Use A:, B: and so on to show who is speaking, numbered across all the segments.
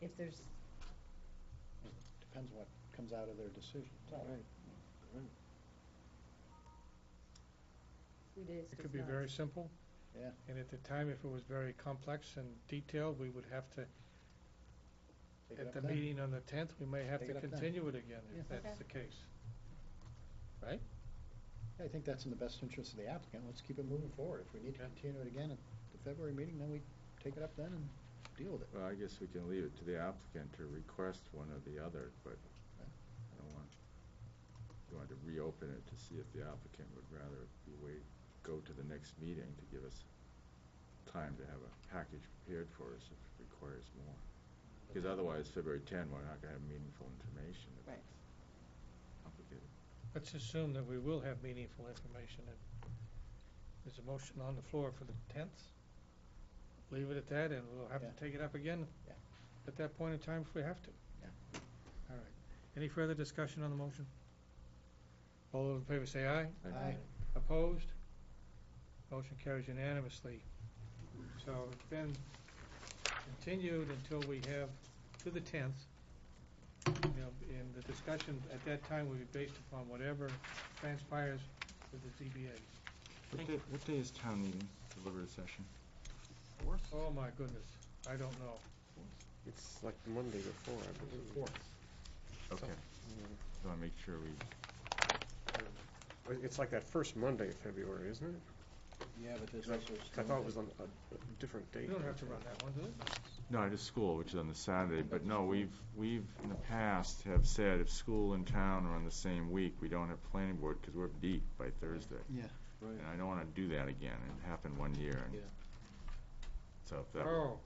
A: if there's,
B: Depends what comes out of their decision.
A: Right. it is,
C: It
A: it's
C: could be
A: not.
C: very simple.
B: Yeah.
C: And at the time, if it was very complex and detailed, we would have to,
B: Take it
C: at
B: up
C: the
B: then.
C: meeting on the tenth, we may have
B: Take
C: to
B: it up then.
C: continue it again,
B: Yeah.
C: if that's
A: Okay.
C: the case.
B: I think that's in the best interest of the applicant. Let's keep it moving forward. If we need to
C: Yeah.
B: continue it again at the February meeting, then we take it up then and deal with it.
D: Well, I guess we can leave it to the applicant to request one or the other, but I don't want, you want to reopen it to see if the applicant would rather we wait, go to the next meeting to give us time to have a package prepared for us if it requires more. Because otherwise, February 10, we're not going to have meaningful information. if
A: Right.
D: it's Complicated.
C: Let's assume that we will have meaningful information. and There's a motion on the floor for the tenth. Leave it at that, and we'll have
B: Yeah.
C: to take it up again
B: Yeah.
C: at that point in time if we have to.
B: Yeah.
C: All right. Any further discussion on the motion? All those in favor say aye.
D: I-
B: Aye.
C: Opposed? Motion carries unanimously. So it's been continued until we have, to the tenth. You know, and the discussion at that time will be based upon whatever transpires with the ZBA.
D: What day, what day is town meeting, deliberative session?
C: Oh, my goodness, I don't know.
E: It's like the Monday before, I believe.
D: Okay. So I make sure we,
E: It- It's like that first Monday of February, isn't it?
B: Yeah, but this
E: 'Cause I-
B: also is.
E: 'cause I thought it was on a a different date.
C: You don't have to run that one, do it?
D: No, it is school, which is on the Saturday, but no, we've, we've, in the past, have said if school and town are on the same week, we don't have planning board, because we're deep by Thursday.
B: Yeah.
D: And I don't want to do that again, it happened one year, and
B: Yeah.
D: so if that,
C: Oh.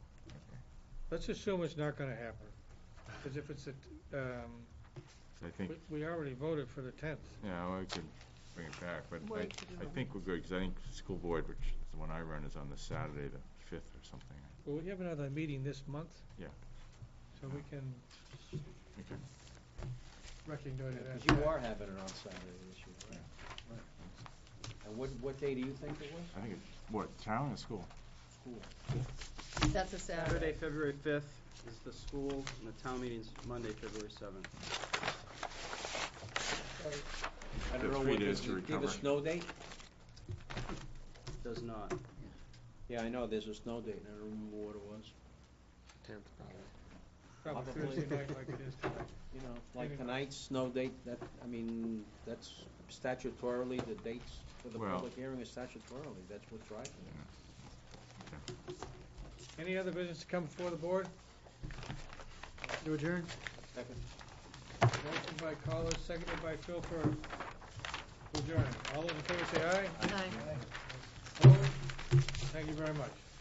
C: Let's assume it's not gonna happen, because if it's a, um,
D: I think,
C: we- we already voted for the tenth.
D: yeah, well, we could bring it back, but I,
A: Wait, did you
D: I
A: want-
D: think we're good, because I think school board, which is the one I run, is on the Saturday, the fifth or something.
C: Well, we have another meeting this month.
D: Yeah.
C: So we can
D: Okay.
C: recognize that.
B: Because you are having it on Saturday this year, right? And what, what day do you think it was?
D: I think it's, what, town or school?
A: That's a
F: Saturday,
A: Saturday.
F: February 5th is the school, and the town meeting's Monday, February 7th.
B: I don't
D: Took
B: know
D: three
B: what
D: days
B: this-
D: to
B: do you have a
D: recover.
B: snow date?
F: Does not.
B: Yeah, I know, there's a snow date, and I don't remember what it was.
E: Tenth, probably.
C: Probably
B: Probably.
C: Thursday night like it is tonight.
B: You know,
C: Maybe.
B: like tonight's snow date, that, I mean, that's statutorily, the dates for the
D: Well-
B: public hearing is statutorily, that's what's right.
C: Any other business to come before the board? You adjourn.
B: Second.
C: Motion by Carlos, seconded by Phil for adjourn. All those in favor say aye.
A: Aye.
C: Opposed? Thank you very much.